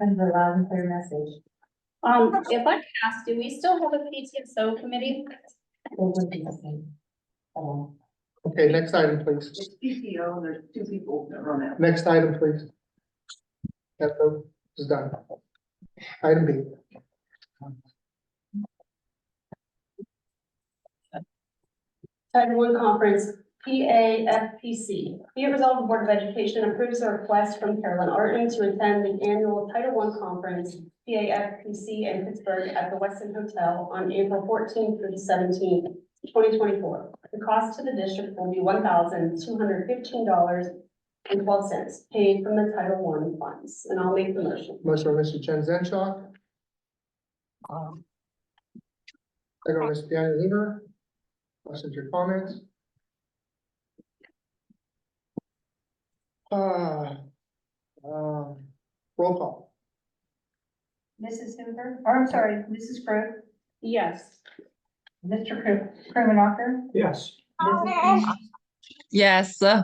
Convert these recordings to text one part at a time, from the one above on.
Kind of a loud and clear message. Um, if I can ask, do we still have a PTSO committee? It would be the same. Um, Okay, next item, please. It's PTO, and there's two people that run that. Next item, please. That vote is done. Item B. Title One Conference, PAFPC. Be it resolved, the Board of Education approves a request from Carolyn Arton to attend the annual Title One Conference, PAFPC in Pittsburgh at the Weston Hotel on April fourteenth through the seventeenth, twenty twenty-four. The cost to the district will be one thousand two hundred fifteen dollars and twelve cents paid from the Title One funds. And I'll make the motion. Motion by Mr. Chen Zhenchao. Second by Ms. Deanna Luber. Questions or comments? Ah, um, roll call. Mrs. Hoover, or I'm sorry, Mrs. Crowe, Yes. Mr. Kru- Krimenacher, Yes. Mrs. Lee, Yes, uh,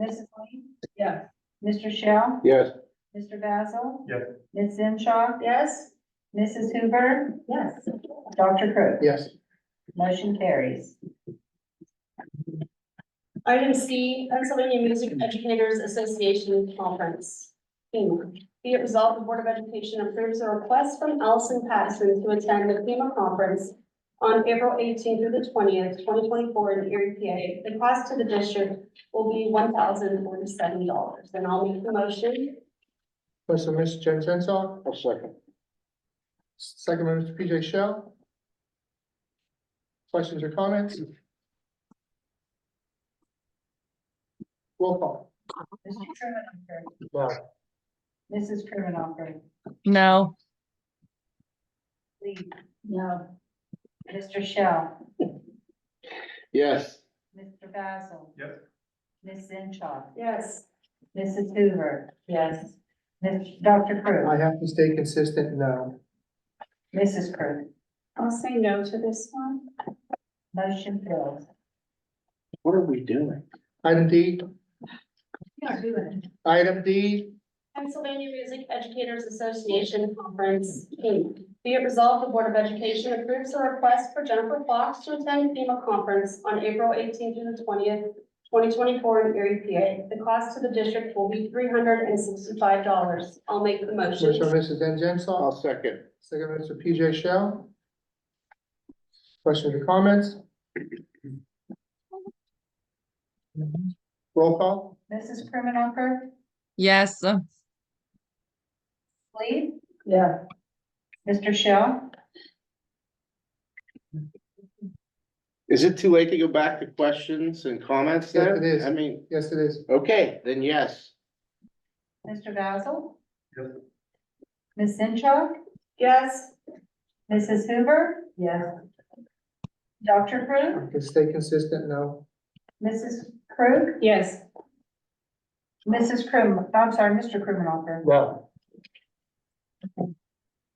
Mrs. Lee, Yes. Mr. Shell, Yes. Mr. Basil. Yes. Ms. Zenshaw, Yes? Mrs. Hoover, Yes. Dr. Crowe. Yes. Motion carries. Item C, Pennsylvania Music Educators Association Conference. FEMA. Be it resolved, the Board of Education approves a request from Allison Patterson to attend the FEMA conference on April eighteenth through the twentieth, twenty twenty-four in Erie, PA. The cost to the district will be one thousand forty-seven dollars. And I'll make the motion. Motion by Mr. Chen Zhenchao. A second. Second by Mr. PJ Shell. Questions or comments? Roll call. Mr. Krimenacher, No. Mrs. Krimenacher, no, Lee. No. Mr. Shell, Yes. Mr. Basil. Yes. Ms. Zenshaw, Yes. Mrs. Hoover, Yes. Ms. Dr. Crowe, I have to stay consistent uh, No. Mrs. Crowe, I'll say no to this one. motion fails. What are we doing? Item D, You are doing it. item D, Pennsylvania Music Educators Association Conference, Inc. Be it resolved, the Board of Education approves the request for Jennifer Fox to attend FEMA conference on April eighteenth to the twentieth, twenty twenty-four in Erie, PA. The cost to the district will be three hundred and sixty-five dollars. I'll make the motion by motion. Mrs. Jen Zenshaw, I'll second. second by Mr. PJ Shell. Questions or comments? Roll call. Mrs. Krimenacher, yes, uh, Lee? Yeah. Mr. Shell, Is it too late to go back to questions and comments Yes, there? it is. I mean, Yes, it is. okay, then yes. Mr. Basil? Yes. Ms. Zenshaw, Yes. Mrs. Hoover? Yes. Dr. Crowe, I can stay consistent No. Mrs. Crowe, Yes. Mrs. Krim, I'm sorry, Mr. Krimenacher, No.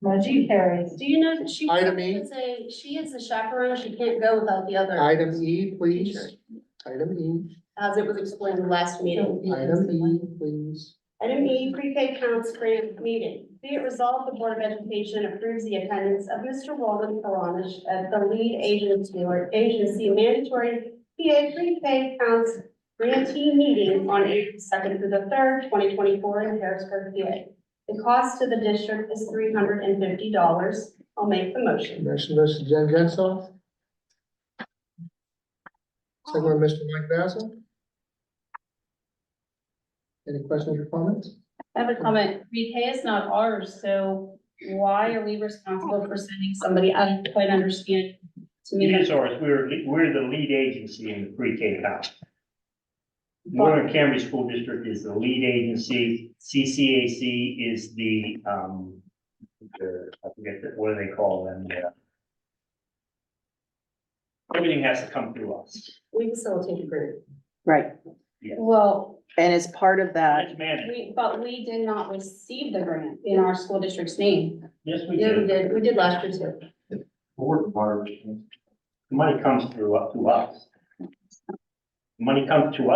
motion carries. Do you know that she Item E. is a, she is a chaperone. She can't go without the other. Item E, please. teacher, Item E, As it was explained in the last meeting. item E, please. Item E, pre-K counts grant meeting. Be it resolved, the Board of Education approves the attendance of Mr. Walden Karanish at the lead agency or agency mandatory PA pre-K counts grantee meeting on April second through the third, twenty twenty-four in Harrisburg, PA. The cost to the district is three hundred and fifty dollars. I'll make the motion. Motion by Mrs. Jen Zenshaw. Second by Mr. Mike Basil. Any questions or comments? I have a comment. Pre-K is not ours, so why are we responsible for sending somebody? I don't quite understand. To me, It that's is ours, we're, we're the lead agency in the pre-K house. Northern Cambridge School District is the lead agency, CCAC is the, um, the, I forget, the- what do they call them, yeah. Everything has to come through us, We facilitate the grant. Right, well, and as part of that, it's managed, we, but we did not receive the grant in our school district's name. yes, we Yeah, we do, did. We did last year too. board of The money comes through, up to us. Money comes to us.